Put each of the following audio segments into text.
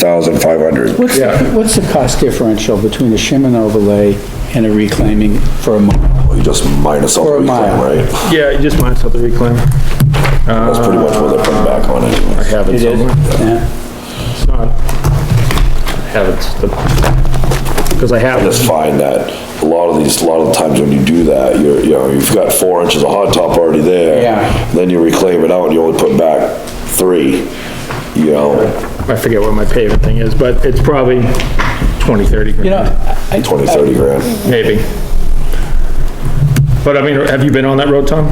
thousand five hundred. What's, the- what's the cost differential between a shim and overlay and a reclaiming for a mile? You just minus all the For a reclaim, mile. right? Yeah, you just minus out the reclaim. That's pretty much what they put back on I it. have it It is, somewhere. yeah, It's not. I have it. Because I have Just this. find that a lot of these, a lot of times when you do that, you're, you know, you've got four inches of hot top already there. Yeah. Then you reclaim it out and you only put back three, you know, I forget what my pavement thing is, but it's probably 20, 30 you know, grand, I- I- twenty, thirty grand. maybe. But I mean, have you been on that road, Tom?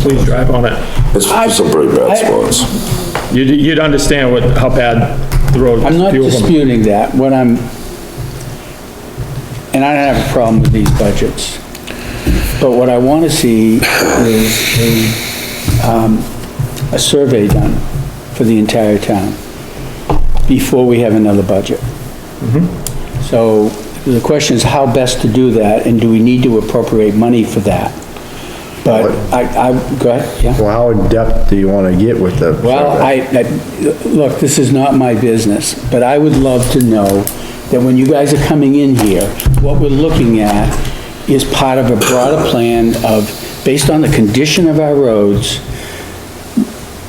Please drive on it. It's it's some pretty bad I- spots. You'd, you'd understand what, how bad the road. I'm not few of them- disputing that, what I'm, and I don't have a problem with these budgets, but what I wanna see is a, um, a survey done for the entire town before we have another budget. So the question is how best to do that, and do we need to appropriate money for that? But I, I, go ahead, yeah? Well, how in-depth do you want to get with the? Well, I, I- look, this is not my business, but I would love to know that when you guys are coming in here, what we're looking at is part of a broader plan of, based on the condition of our roads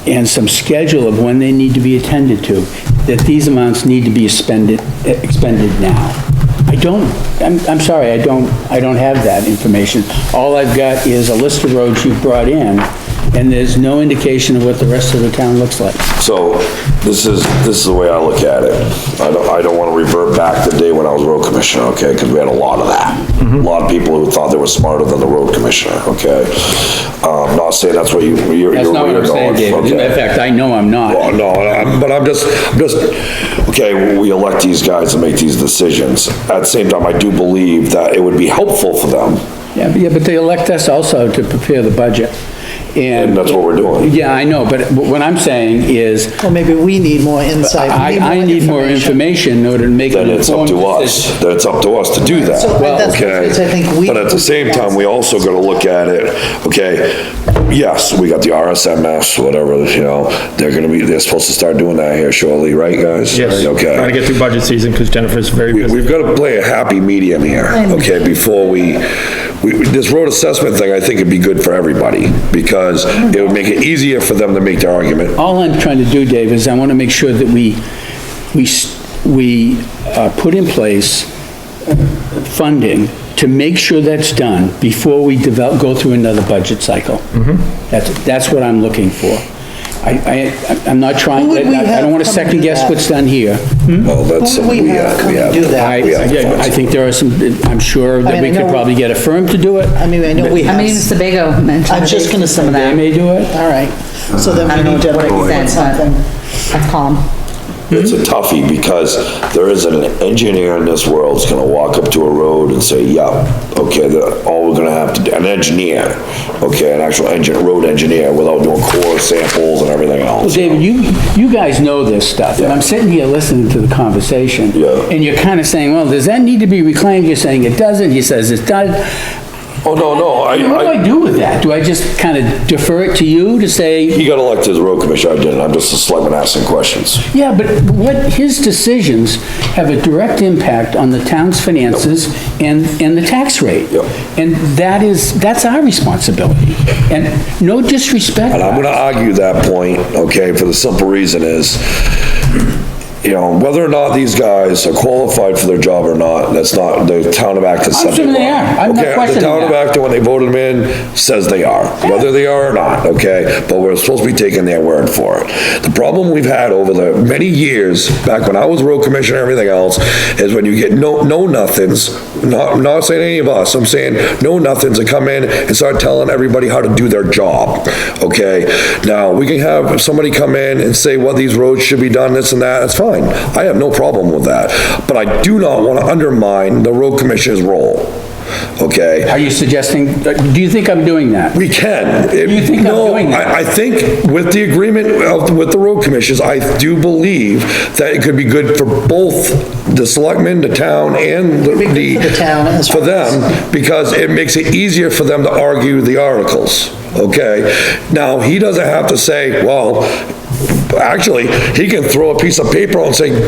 and some schedule of when they need to be attended to, that these amounts need to be expended, expended now. I don't, I'm, I'm sorry, I don't, I don't have that information. All I've got is a list of roads you've brought in, and there's no indication of what the rest of the town looks like. So this is, this is the way I look at it. I don't, I don't wanna revert back to the day when I was road commissioner, okay? Cause we had a lot of that. A lot of people who thought they were smarter than the road commissioner, okay? Um, not saying that's what you, you're. That's you're- not what you're I'm saying, going, David. In okay. fact, I know I'm Well, not. no, I'm- but I'm just, I'm just, okay, we elect these guys to make these decisions. At the same time, I do believe that it would be helpful for them, Yeah, but- yeah, but they elect us also to prepare the budget. and And, that's what we're doing. yeah, I know, but what I'm saying is, Well, maybe we need more insight. I, I need more information in order to make an Then it's up informed to decision. us, then it's up to us to do that. So Well, that's, Okay. which I think we. But at the same time, we also gotta look at it, okay, yes, we got the RSMS, whatever, you know, they're gonna be, they're supposed to start doing that here shortly, right, guys? Yes. Trying to Okay. get through budget season because Jennifer's very We- busy. We've gotta play a happy medium here, okay, before we, we, we- this road assessment thing, I think it'd be good for everybody, because it would make it easier for them to make their argument. All I'm trying to do, Dave, is I want to make sure that we, we, s- we uh, put in place funding to make sure that's done before we develop, go through another budget cycle. That's, that's what I'm looking for. I, I, I'm not trying, Who would we I don't have want to come to second guess that? what's done here. Well, that's Who do something Mm-hmm. we we have have, come we to have. do that? I, we have yeah, funds. I think there are some, I'm sure I that we mean, I could know- probably get a firm to do it. I mean, I know we I have. mean, even Sebago mentioned. I was just gonna say some of They that. may do it. All right, so then I we don't know need to to what put extent, something. but let's call him. It's a toughie because there isn't an engineer in this world that's gonna walk up to a road and say, yeah, okay, the, all we're gonna have to do, an engineer, okay, an actual engine, road engineer without doing core samples and everything Well, else. David, you, you guys know this stuff, and I'm sitting here listening to the conversation. Yeah. And you're kind of saying, well, does that need to be reclaimed? You're saying it doesn't, he says it does. Oh, no, no, I, What do I I, do with that? Do I just kind of defer it to you to say, he got elected as road commissioner, I didn't, I'm just a selectman asking questions. yeah, but what, his decisions have a direct impact on the town's finances and, and the tax rate. Yep. And that is, that's our responsibility. And no disrespect. And I'm gonna argue that point, okay, for the simple reason is, you know, whether or not these guys are qualified for their job or not, that's not, the town of Acton said they assuming they were. are. I'm not Okay, questioning The town of that. Acton, when they voted them in, says they are, whether they are or not, okay? But we're supposed to be taking their word for it. The problem we've had over the many years, back when I was road commissioner and everything else, is when you get no, no nothings, not, not saying any of us, I'm saying no nothings that come in and start telling everybody how to do their job, okay? Now, we can have somebody come in and say what these roads should be done, this and that, that's fine. I have no problem with that. But I do not want to undermine the road commissioner's role, okay? Are you suggesting, uh, do you think I'm doing that? We can. You think I'm doing that? No, I, I think with the agreement of, with the road commissions, I do believe that it could be good for both the selectmen, the town, and the. be good for the town as For well as- them, because it makes it easier for them to argue the articles, okay? Now, he doesn't have to say, well, Actually, he can throw a piece of paper out and say,